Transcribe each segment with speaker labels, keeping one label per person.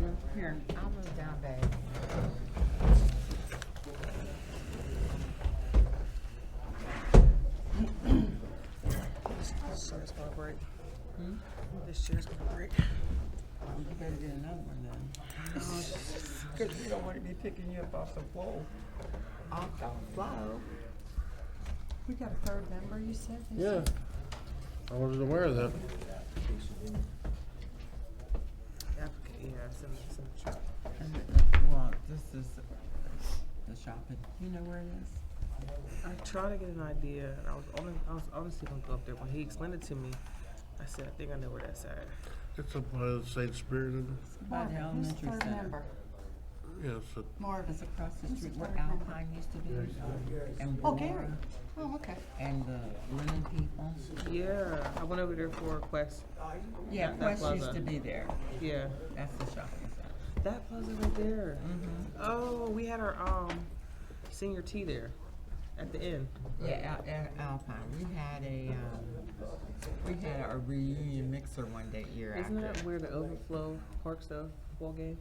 Speaker 1: down, here, I'll move down, babe.
Speaker 2: This chair's gonna break.
Speaker 1: Hmm?
Speaker 2: This chair's gonna break.
Speaker 3: You better get another one then. Because we don't want to be picking you up off the floor.
Speaker 1: Off the flow. We got a third member, you said?
Speaker 4: Yeah. I wasn't aware of that.
Speaker 2: Yeah, some, some. tr-
Speaker 3: And it- Well, this is the shopping. You know where it is?
Speaker 2: I tried to get an idea, and I was only, I was honestly gonna go up there. When he explained it to me, I said, I think I know where that's at.
Speaker 4: It's uh, up by the St. Spirit, and,
Speaker 3: By the
Speaker 1: Marvin, who's
Speaker 3: elementary
Speaker 1: third
Speaker 3: center.
Speaker 1: member?
Speaker 4: yes, it-
Speaker 1: Marvin.
Speaker 3: It's across the
Speaker 1: Who's
Speaker 3: street
Speaker 1: the
Speaker 3: where
Speaker 1: third member?
Speaker 3: Alpine used to be. And
Speaker 1: Oh, Gary.
Speaker 3: Warren
Speaker 1: Oh, okay.
Speaker 3: And the linen people.
Speaker 2: Yeah, I went over there for a quest.
Speaker 3: Yeah,
Speaker 2: That
Speaker 3: Quest used
Speaker 2: plaza.
Speaker 3: to be there.
Speaker 2: Yeah,
Speaker 3: That's the shopping center.
Speaker 2: that plaza right there. Oh, we had our um senior tea there at the end.
Speaker 3: Yeah, out at Alpine. We had a, um, we had a reunion mixer one that year
Speaker 2: Isn't
Speaker 3: after.
Speaker 2: that where the overflow parks the ball games?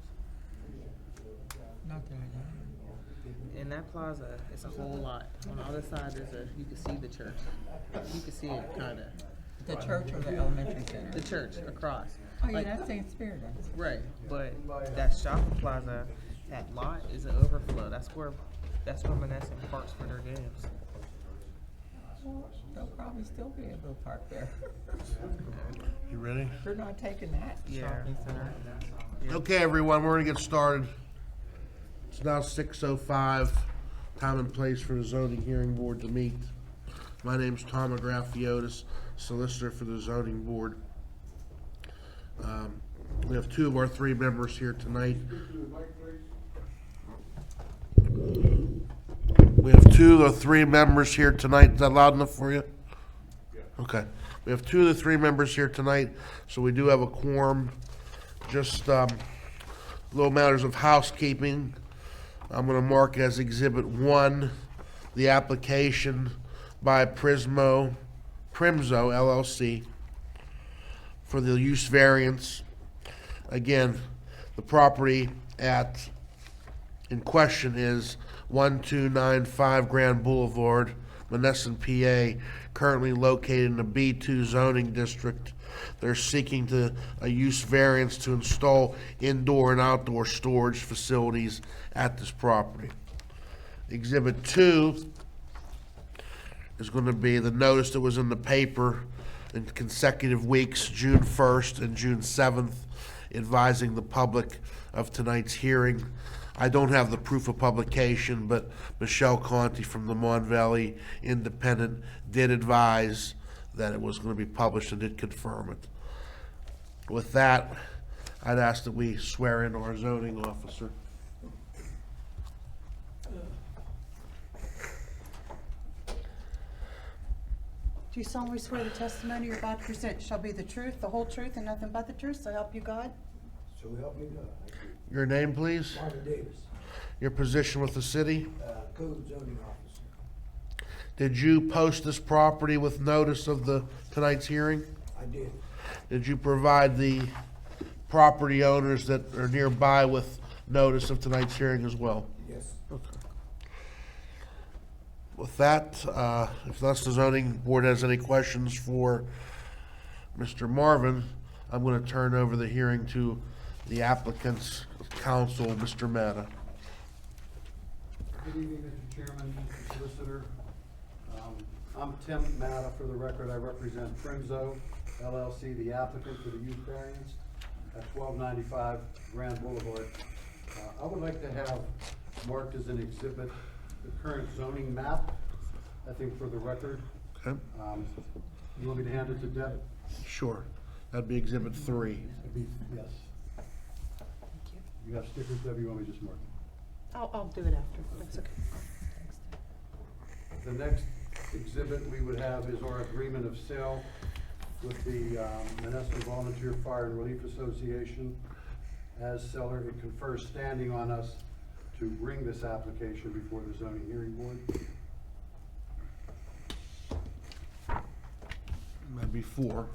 Speaker 3: Not that I know.
Speaker 2: In that plaza, it's a whole lot. On the other side, there's a you can see the church. You can see it kind of.
Speaker 3: The church or the elementary
Speaker 2: The
Speaker 3: center?
Speaker 2: church across.
Speaker 3: Oh, yeah,
Speaker 2: Like-
Speaker 3: that's St. Spirit.
Speaker 2: Right, but that shopping plaza, that lot is an overflow. That's where, that's where Menneson parks for their games.
Speaker 3: Well, They'll probably still be able to park there.
Speaker 4: you ready?
Speaker 3: They're not taking that
Speaker 2: Yeah.
Speaker 3: shopping center.
Speaker 4: Okay, everyone, we're gonna get started. It's now six oh five, time and place for the zoning hearing board to meet. My name's Tom Agrafiotis, solicitor for the zoning board. Um, We have two of our three members here tonight. We have two of the three members here tonight. Is that loud enough for you? Okay. We have two of the three members here tonight, so we do have a quorum. Just um, little matters of housekeeping. I'm going to mark as Exhibit 1, the application by Prismo, Primzo LLC for the use variance. Again, the property at, in question is 1295 Grand Boulevard, Monessen, PA, currently located in the B2 zoning district. They're seeking to, a use variance to install indoor and outdoor storage facilities at this property. Exhibit two is going to be the notice that was in the paper in consecutive weeks, June 1st and June 7th, advising the public of tonight's hearing. I don't have the proof of publication, but Michelle Conti from the Mon Valley Independent did advise that it was going to be published and did confirm it. With that, I'd ask that we swear in our zoning officer.
Speaker 1: Do you solemnly swear the testimony you're about to present shall be the truth, the whole truth, and nothing but the truth, so help you God?
Speaker 5: So help me God.
Speaker 4: Your name, please,
Speaker 5: Marvin Davis,
Speaker 4: your position with the city.
Speaker 5: uh, code zoning officer.
Speaker 4: Did you post this property with notice of the, tonight's hearing?
Speaker 5: I did.
Speaker 4: Did you provide the property owners that are nearby with notice of tonight's hearing as well?
Speaker 5: Yes.
Speaker 4: With that, uh, if thus the zoning board has any questions for Mr. Marvin, I'm gonna turn over the hearing to the applicant's counsel, Mr. Matta.
Speaker 6: Good evening, Mr. Chairman, Mr. Solicitor. Um, I'm Tim Matta, for the record, I represent Primzo LLC, the applicant for the use variance at twelve ninety-five Grand Boulevard. Uh, I would like to have marked as an exhibit the current zoning map, I think for the record.
Speaker 4: Okay,
Speaker 6: Um, You want me to hand it to Deb?
Speaker 4: sure. That'd be exhibit three.
Speaker 6: It'd be- Yes. You have stickers, Deb, you want me to just mark it?
Speaker 2: I'll, I'll do it after, that's okay.
Speaker 6: The next exhibit we would have is our agreement of sale with the um, Menneson Volunteer Fire and Relief Association. As seller, it confers standing on us to bring this application before the zoning hearing board.
Speaker 4: That'd be four.